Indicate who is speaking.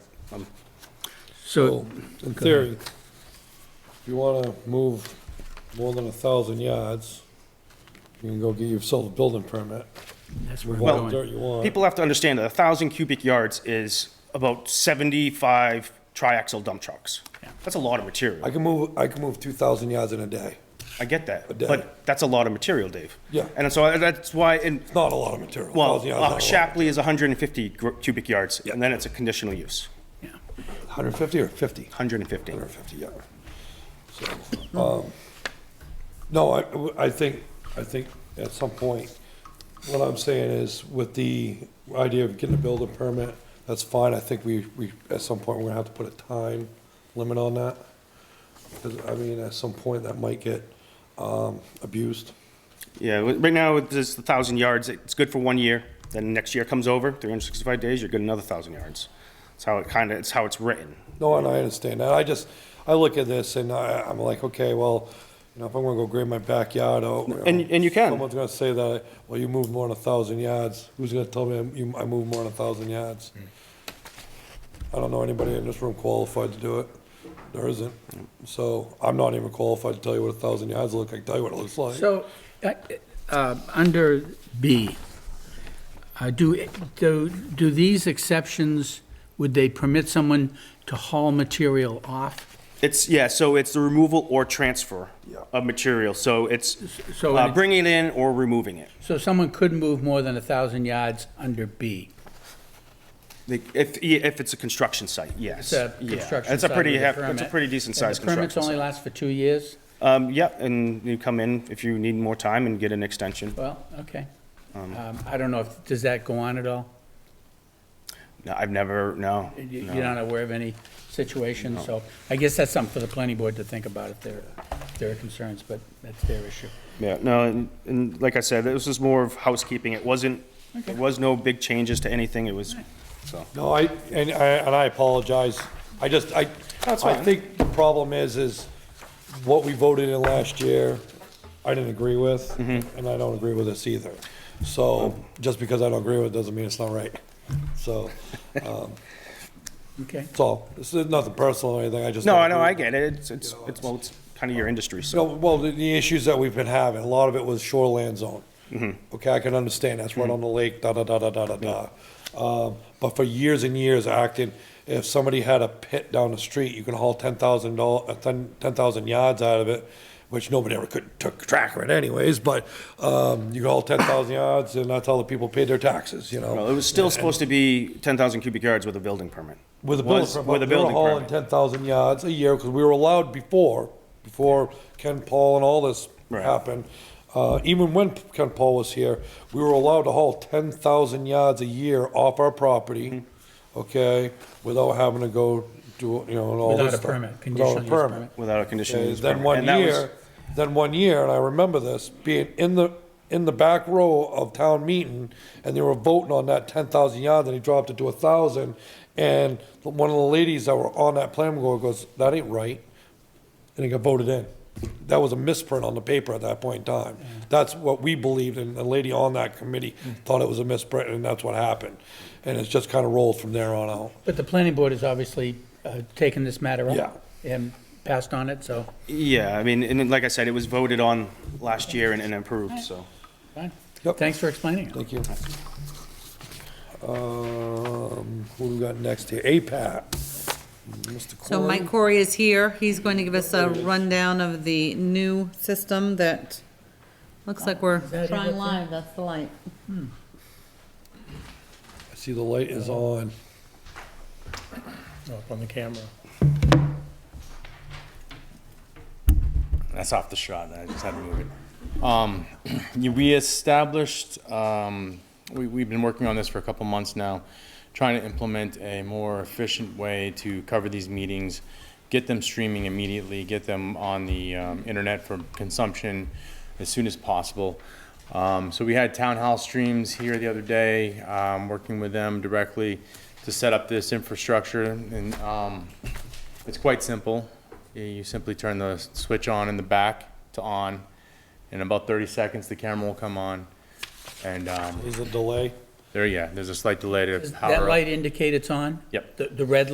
Speaker 1: So,
Speaker 2: In theory, if you wanna move more than a thousand yards, you can go get yourself a building permit.
Speaker 1: that's where I'm
Speaker 2: What
Speaker 1: going.
Speaker 2: dirt you want.
Speaker 3: People have to understand that 1,000 cubic yards is about 75 triaxle dump trucks. That's a lot of
Speaker 2: I
Speaker 3: material.
Speaker 2: can move, I can move two thousand yards in a day.
Speaker 3: I get that,
Speaker 2: day.
Speaker 3: but that's a lot of material, Dave.
Speaker 2: Yeah.
Speaker 3: And so uh, that's why, and,
Speaker 2: It's Not a lot of material.
Speaker 3: well,
Speaker 2: 1,000 yards is not a
Speaker 3: uh,
Speaker 2: lot.
Speaker 3: Shapley is 150 gr- cubic yards,
Speaker 2: Yeah.
Speaker 3: and then it's a conditional use,
Speaker 2: 150 or 50?
Speaker 3: 150.
Speaker 2: 150, yeah. So, um, No, I, I think, I think at some point, what I'm saying is with the idea of getting a building permit, that's fine. I think we, we, at some point, we're gonna have to put a time limit on that. Because, I mean, at some point, that might get um, abused.
Speaker 3: Yeah, w- right now, it's just 1,000 yards, it's good for one year, then next year comes over, 365 days, you're good another 1,000 yards. That's how it kind of, it's how it's written.
Speaker 2: No, and I understand that. I just, I look at this and I, I'm like, okay, well, you know, if I'm gonna go grade my backyard out. you know,
Speaker 3: And- and you can.
Speaker 2: Someone's gonna say that, well, you moved more than a thousand yards. Who's gonna tell me I'm- you- I moved more than a thousand yards? I don't know anybody in this room qualified to do it. There isn't. So I'm not even qualified to tell you what a thousand yards look like, tell you what it looks like.
Speaker 1: So, uh, uh, under B, uh, do, do, do these exceptions, would they permit someone to haul material off?
Speaker 3: It's, yeah, so it's the removal or transfer
Speaker 2: Yeah.
Speaker 3: of material, so it's
Speaker 1: so
Speaker 3: uh,
Speaker 1: any-
Speaker 3: bringing it in or removing it.
Speaker 1: So someone could move more than a 1,000 yards under B.
Speaker 3: Like, If, yeah, if it's a construction site, yes.
Speaker 1: It's a
Speaker 3: Yeah.
Speaker 1: construction
Speaker 3: It's a
Speaker 1: site
Speaker 3: pretty,
Speaker 1: with a
Speaker 3: hef- it's a
Speaker 1: permit.
Speaker 3: pretty decent sized
Speaker 1: And the permits
Speaker 3: construction
Speaker 1: only
Speaker 3: site.
Speaker 1: last for two years?
Speaker 3: Um, yeah, and you come in if you need more time and get an extension.
Speaker 1: Well, okay. Um, I don't know, if does that go on at all?
Speaker 3: No, I've never, no.
Speaker 1: You-
Speaker 3: no.
Speaker 1: You're not aware of any situation, so I guess that's something for the planning board to think about if there, if there are concerns, but that's their issue.
Speaker 3: Yeah, no, and, and like I said, this was more of housekeeping. It wasn't,
Speaker 1: Okay.
Speaker 3: there was no big changes to anything. It was, so.
Speaker 2: No, I, and I, and I apologize. I just, I,
Speaker 3: That's
Speaker 2: I
Speaker 3: fine.
Speaker 2: think the problem is, is what we voted in last year, I didn't agree with,
Speaker 3: Mm-hmm.
Speaker 2: and I don't agree with this either. So, just because I don't agree with it doesn't mean it's not right. So,
Speaker 1: Okay,
Speaker 2: it's all, it's nothing personal or anything, I just.
Speaker 3: No,
Speaker 2: don't
Speaker 3: I know,
Speaker 2: agree.
Speaker 3: I get it. It's, it's, it's, well, it's kind of your industry,
Speaker 2: No,
Speaker 3: so.
Speaker 2: well, the, the issues that we've been having, a lot of it was shoreland zone. Okay, I can understand, that's right on the lake, da, da, da, da, da, da, da. Um, but for years and years acting, if somebody had a pit down the street, you can haul ten thousand doll, uh, ten, ten thousand yards out of it, which nobody ever could, took track of it anyways, but, um, you can haul ten thousand yards and that's how the people paid their taxes, you
Speaker 3: No, it
Speaker 2: know?
Speaker 3: was still supposed to be ten thousand cubic yards with a building permit.
Speaker 2: With a
Speaker 3: Was-
Speaker 2: building
Speaker 3: With a
Speaker 2: permit, they were
Speaker 3: building
Speaker 2: hauling
Speaker 3: permit.
Speaker 2: ten thousand yards a year, because we were allowed before, before Ken Paul and all this
Speaker 3: Right.
Speaker 2: happened. Uh, even when Ken Paul was here, we were allowed to haul ten thousand yards a year off our property,
Speaker 3: Mm-hmm.
Speaker 2: okay, without having to go do, you know, and all
Speaker 1: Without
Speaker 2: this
Speaker 1: a
Speaker 2: stuff.
Speaker 1: permit, conditional use permit.
Speaker 3: Without a conditional
Speaker 2: Okay,
Speaker 3: use
Speaker 2: Uh, Then
Speaker 3: permit.
Speaker 2: one
Speaker 3: And that was-
Speaker 2: year, then one year, and I remember this, being in the, in the back row of town meeting, and they were voting on that ten thousand yards, and he dropped it to a thousand, and one of the ladies that were on that plan board goes, that ain't right, and it got voted in. That was a misprint on the paper at that point in time. That's what we believed, and the lady on that committee
Speaker 3: Mm.
Speaker 2: thought it was a misprint, and that's what happened. And it's just kind of rolled from there on out.
Speaker 1: but the planning board has obviously uh, taken this matter up.
Speaker 2: Yeah.
Speaker 1: And passed on it, so,
Speaker 3: Yeah, I mean, and then, like I said, it was voted on last year and, and approved, so.
Speaker 1: fine.
Speaker 2: Yep.
Speaker 1: Thanks for explaining it.
Speaker 2: Thank you. Um, who we got next here? APAT. Mr.
Speaker 4: So
Speaker 2: Corey?
Speaker 4: Mike Corey is here. He's going to give us a rundown of the new system that looks like we're
Speaker 1: that it
Speaker 4: trying
Speaker 1: up there?
Speaker 4: live. That's the light.
Speaker 2: I see the light is on.
Speaker 5: up on the camera.
Speaker 6: That's off the shot. I just had to move it. Um, you- we established, um, we, we've been working on this for a couple months now, trying to implement a more efficient way to cover these meetings, get them streaming immediately, get them on the um, internet for consumption as soon as possible. Um, so we had town hall streams here the other day, um, working with them directly to set up this infrastructure and um, it's quite simple. You- You simply turn the switch on in the back to on. In about 30 seconds, the camera will come on. And um,
Speaker 2: Is it delay?
Speaker 6: there, yeah, there's a slight delay to
Speaker 1: Does
Speaker 6: power up.
Speaker 1: that light indicate it's on?
Speaker 6: Yep.
Speaker 1: The, the red